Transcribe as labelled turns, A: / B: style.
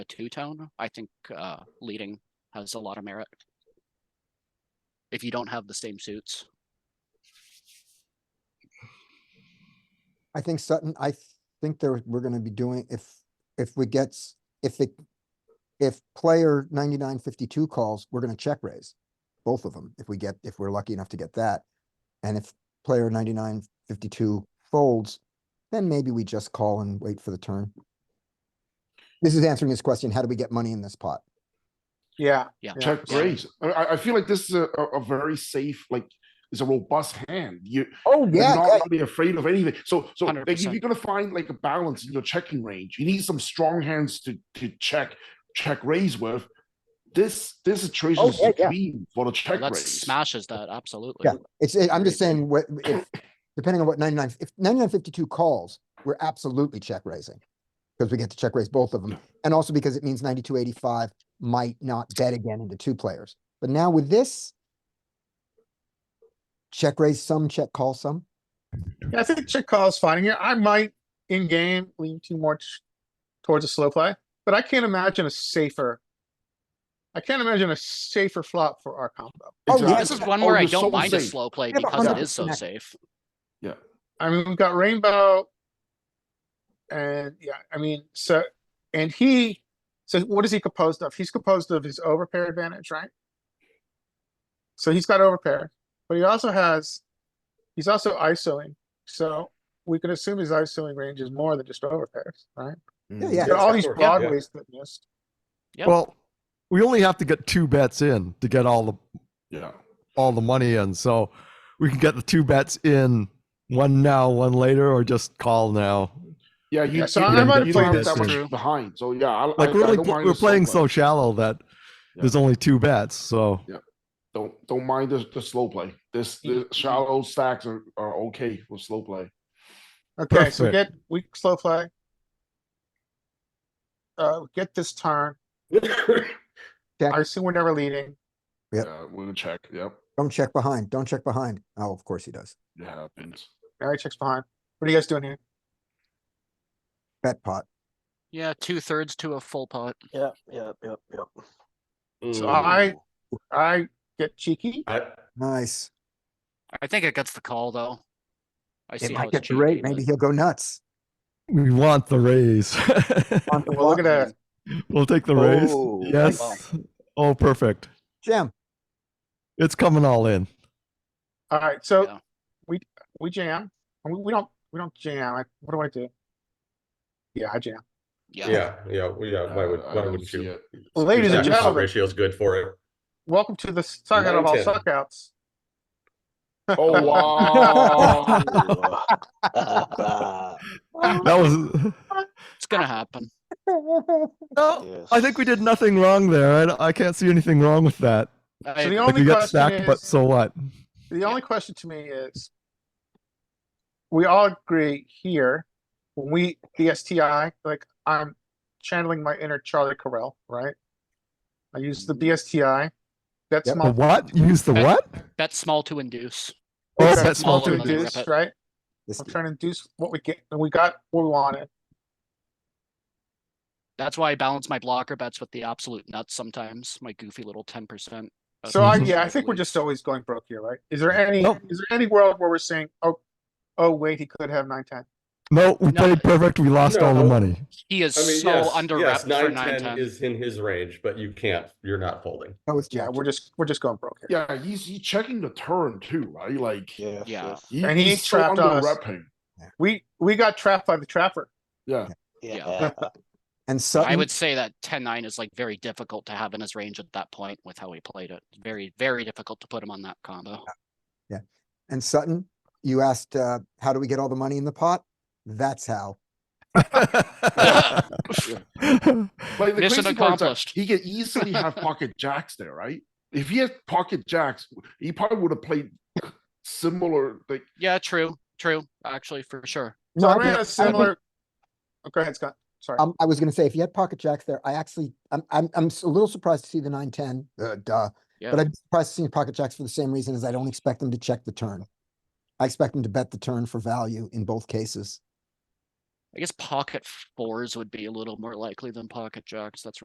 A: a two tone, I think uh, leading has a lot of merit. If you don't have the same suits,
B: I think Sutton, I th- think there, we're gonna be doing, if, if we gets, if it, if player ninety-nine fifty-two calls, we're gonna check raise, both of them, if we get, if we're lucky enough to get that. And if player ninety-nine fifty-two folds, then maybe we just call and wait for the turn. This is answering his question, how do we get money in this pot?
C: Yeah.
A: Yeah.
D: check
A: Yeah.
D: raise. I- I, I feel like this is a, a a very safe, like, it's a robust hand. You,
B: Oh,
D: you're
B: yeah,
D: not
B: yeah,
D: really afraid of anything. So, so like, if
A: 100%.
D: you're gonna find like a balance in your checking range, you need some strong hands to to check check raise with. This this situation
B: Oh,
D: is
B: yeah,
D: the
B: yeah.
D: queen for the check
A: that
D: raise.
A: smashes that absolutely.
B: Yeah. It's, it- I'm just saying, what, if, depending on what ninety-nine, if ninety-nine fifty-two calls, we're absolutely check raising. Because we get to check raise both of them, and also because it means ninety-two eighty-five might not bet again into two players, but now with this. Check raise some, check call some.
C: Yeah, I think check call is fine here. I might in game lean too much towards a slow play, but I can't imagine a safer. I can't imagine a safer flop for our combo.
B: Oh, yeah.
A: This is
D: Exactly.
A: one
D: Oh,
A: where I
D: you're so
A: don't mind a
D: safe.
A: slow play
B: Yeah, but
A: because it
B: 100%
A: is so
B: connect.
A: safe.
C: I mean, we've got rainbow. And yeah, I mean, so and he so what is he composed of? He's composed of his overpair advantage, right? So he's got overpair, but he also has he's also ISOing. So we can assume his ISOing range is more than just overpairs, right?
B: Yeah, yeah.
C: There are all these
A: Yeah.
C: broadways that missed.
A: Yep.
E: Well, we only have to get two bets in to get all the
D: Yeah.
E: all the money in. So we can get the two bets in one now, one later, or just call now.
D: Yeah, you,
C: Yeah, so
D: you,
C: I
D: you
C: might
D: you
C: play
D: don't have
E: this
D: that
A: in.
D: much behind. So yeah, I,
E: Like
D: I,
E: we're
D: I
E: only
D: don't
E: pl-
D: mind
E: we're
D: the slow
E: playing
D: play.
E: so shallow that there's only two bets. So
D: Don't don't mind the, the slow play. This the shallow stacks are, are okay with slow play.
C: Okay, so we
E: Perfect.
C: get weak slow play. Uh, we get this turn.
B: Check.
C: I assume we're never leading.
B: Yep.
D: Yeah, we're gonna check. Yep,
B: Don't check behind, don't check behind. Oh, of course he does.
D: it happens.
C: Mary checks behind. What are you guys doing here?
B: Bet pot.
A: Yeah, two thirds to a full pot.
F: Yeah, yeah, yeah, yeah.
C: So I, I get cheeky.
B: Nice.
A: I think it gets the call though. I
B: It
A: see how
B: might
A: it's
B: get great.
A: cheeky,
B: Maybe
A: but-
B: he'll go nuts.
E: we want the raise.
B: On the
C: Well, look
B: flop.
C: at that.
E: we'll take the
F: Oh,
E: raise. Yes. Oh, perfect.
B: Jam.
E: It's coming all in.
C: All right,
A: Yeah.
C: so we, we jam. and We, we don't, we don't jam. I- What do I do? Yeah, I jam.
A: Yeah,
G: Yeah, yeah, well, yeah, why would,
D: Uh, I
G: wouldn't
D: don't
G: you?
D: see it.
C: Ladies and
G: Exactly, comp
C: gentlemen,
G: Ratio's good for it.
C: welcome to the suck out of all
G: Nine, ten.
C: suckouts.
D: Oh wow!
C: Ah.
E: That was.
A: it's gonna happen.
E: No, I think we did nothing wrong there. I, don't- I can't see anything wrong with that.
A: I
C: So the
A: agree.
E: Like
C: only
E: we got
C: question
E: stacked, but
C: is,
E: so what?
C: the only question to me is, we all agree here, when we, the STI, like, I'm channeling my inner Charlie Carell, right? I use the BSTI. That's
B: Yep.
E: The
C: my,
E: what? Use the
A: Okay.
E: what?
A: bet small to induce.
E: Oh,
C: that's
E: that's
A: small
E: small
A: to
C: small to
A: and then rip
C: induce,
A: it.
C: right?
B: This-
C: I'm trying to induce what we get, and we got what we wanted.
A: That's why I balance my blocker bets with the absolute nuts sometimes. My goofy little ten percent.
C: So I,
E: Mhm.
C: yeah, I think we're just always going broke here, right? Is there any,
E: Nope.
C: is there any world where we're saying, oh, oh, wait, he could have nine, ten?
E: No, we
A: No.
E: played perfect. We lost all the
G: No.
E: money.
A: He is
G: I mean,
A: so
G: yes,
A: under
G: yes,
A: rep for
G: nine,
A: nine ten.
G: ten is in his range, but you can't, you're not folding.
B: Oh, it's
C: Yeah,
B: Jack.
C: we're just, we're just going broke here.
D: yeah, he's he's checking the turn too, right? Like
F: Yeah,
A: Yeah.
D: he-
C: And he
D: he's so
C: trapped us.
D: underrepping.
C: We, we got trapped by the trapper.
D: Yeah,
F: yeah.
B: And
A: I
B: Sutton,
A: would say that 10-9 is like very difficult to have in his range at that point with how he played it. Very, very difficult to put him on that combo.
B: and Sutton, you asked, uh, how do we get all the money in the pot? That's how.
D: like the
A: Mission
D: crazy part is that
A: accomplished.
D: he could easily have pocket jacks there, right? If he had pocket jacks, he probably would have played similar. Like
A: Yeah, true, true, actually, for sure.
C: So
B: No,
C: I
B: think-
C: ran a
B: think-
C: similar. Oh, Go ahead, Scott. Sorry.
B: Um, I was gonna say, if you had pocket jacks there, I actually, I'm, I'm, I'm s- a little surprised to see the nine, ten, uh, duh.
A: Yeah.
B: But I'm surprised to see pocket jacks for the same reason as I don't expect them to check the turn. I expect them to bet the turn for value in both cases.
A: I guess pocket fours would be a little more likely than pocket jacks. That's